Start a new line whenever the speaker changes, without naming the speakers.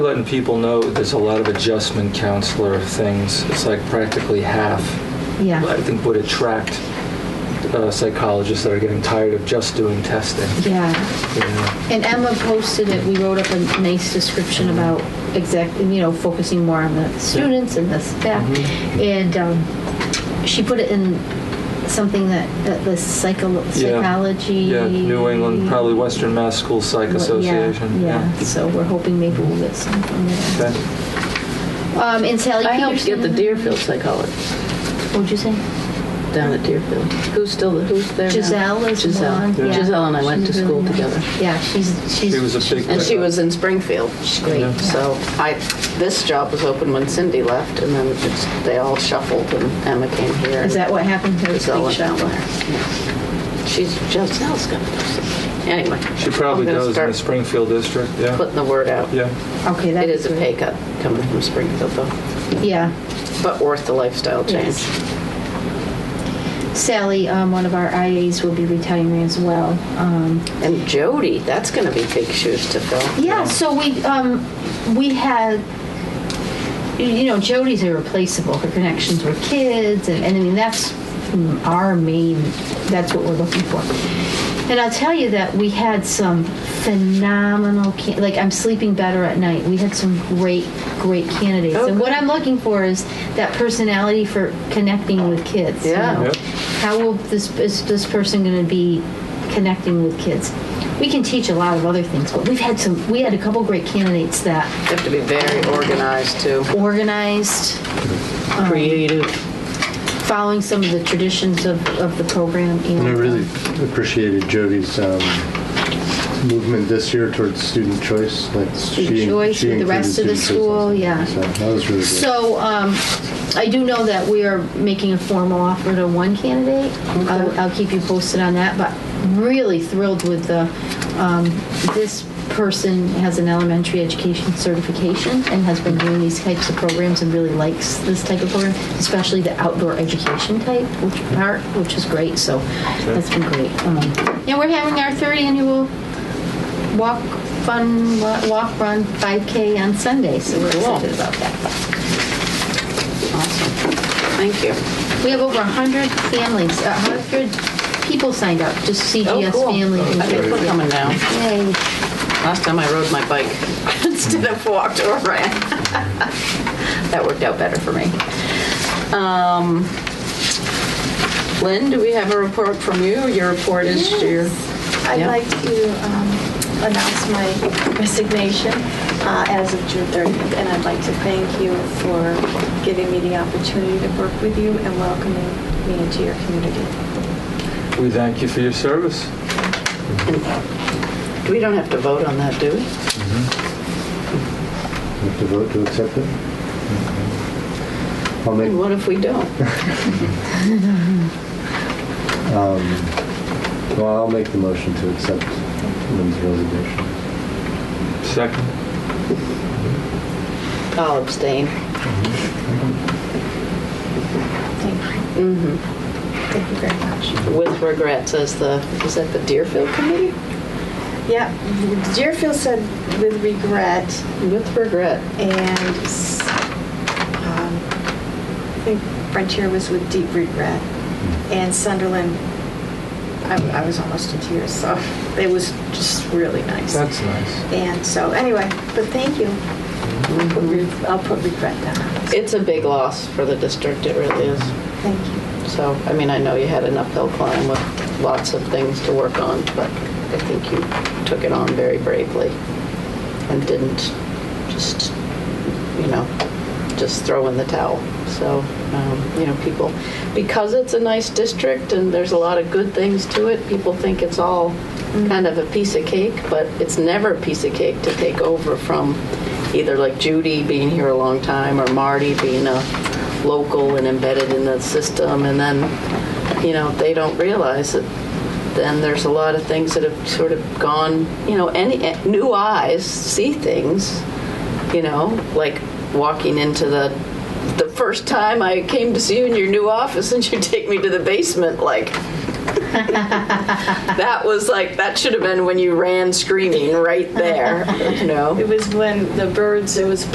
Letting people know there's a lot of adjustment counselor things. It's like practically half. I
Yeah,
think would attract uh, psychologists that are getting tired of just doing testing.
yeah.
You know?
And Emma posted it, we wrote up a nice description about exactly, you know, focusing more on the students and the staff.
Mm-hmm.
And um, she put it in something that, that the psycho,
Yeah.
psychology.
Yeah, New England, probably Western Mass School Psych
Well, yeah,
Association.
Yeah, so we're hoping maybe we'll get something there.
Okay.
Um, and Sally
I helped
Peterson.
get the Deerfield psychologist
What'd you say?
down at Deerfield. Who's still, the who's there now?
Giselle is
Giselle.
one, yeah.
Giselle and I went to
She's
school
really nice.
together.
Yeah, she's, she's.
She was a big.
And she was in Springfield. She's
great. Yeah.
So I, this job was open when Cindy left, and then it's, they all shuffled, and Emma came here.
Is that what happened to
Giselle
Big
went down
Shot?
there. Yeah. She's, Giselle's gonna do something. Anyway.
She probably
I'm gonna
does in the
start
Springfield district. Yeah.
Putting the word out.
yeah.
Okay, that
It
is,
is a pay cut coming from Springfield, though,
yeah.
but worth the lifestyle change.
Yes. Sally, um, one of our IAs, will be retiring as well. Um,
And Jody, that's gonna be big shoes to fill.
yeah, so we um, we had, you- you know, Jody's irreplaceable. Her connections were kids, and, and I mean that's mm, our main. That's what we're looking for. And I'll tell you that we had some phenomenal, can- like I'm sleeping better at night. We had some great, great candidates.
Oh,
and what
good.
I'm looking for is that personality for connecting with kids. you
Yeah.
know.
Yep.
How will this is this person going to be connecting with kids? We can teach a lot of other things, but we've had some. We had a couple great candidates that
You have to be very organized too,
organized,
Um, creative.
following some of the traditions of, of the program. um, And,
And I really appreciated Jody's um, movement this year towards student choice. Like
Student
she,
choice
she
with the
included
rest of the
student choice
school,
also.
yeah.
So that was really good.
So um, I do know that we are making a formal offer to one candidate. I'll, I'll keep you posted on that, but really thrilled with the, um, this person has an elementary education certification and has been doing these types of programs and really likes this type of program, especially the outdoor education type, which part, which is great, so that's been great. Um, And we're having our third annual walk, fun, wa- walk, run, 5K on Sunday, so we're
Cool.
excited about that.
Awesome. Thank you.
We have over 100 families, uh, 100 people signed up, just CGS family.
Oh, I think we're coming down.
Yay.
Last time I rode my bike instead of walked or ran. That worked out better for me. Um, Lynn, do we have a report from you? Your report is your,
I'd
Yeah.
like to um, announce my resignation uh, as of June 30th, and I'd like to thank you for giving me the opportunity to work with you and welcoming me into your community.
We thank you for your service.
we don't have to vote on that, do we?
You have to vote to accept it. I'll make
And what if we don't?
um, well, I'll make the motion to accept Lynn's resignation.
Second.
I'll abstain.
Thank you.
Mhm.
Thank you very much.
With regrets, as the, is that the Deerfield Committee?
Yeah, Deerfield said with regret,
With regret.
and s- um, I think Frontier was with deep regret, and Sunderland, I I was almost in tears, so it was just really nice.
That's nice.
And so, anyway, but thank you. I'll put re- I'll put regret down.
It's a big loss for the district, it really is.
Thank you.
So, I mean, I know you had an uphill climb with lots of things to work on, but I think you took it on very bravely and didn't just, you know, just throw in the towel. So, um, you know, people, because it's a nice district and there's a lot of good things to it, people think it's all kind of a piece of cake, but it's never a piece of cake to take over from either like Judy being here a long time or Marty being a local and embedded in the system, and then, you know, they don't realize that then there's a lot of things that have sort of gone, you know, any, eh, new eyes see things, you know, like walking into the, the first time I came to see you in your new office and you take me to the basement, like, That was like, that should have been when you ran screaming right there, you know?
It was when the birds, it was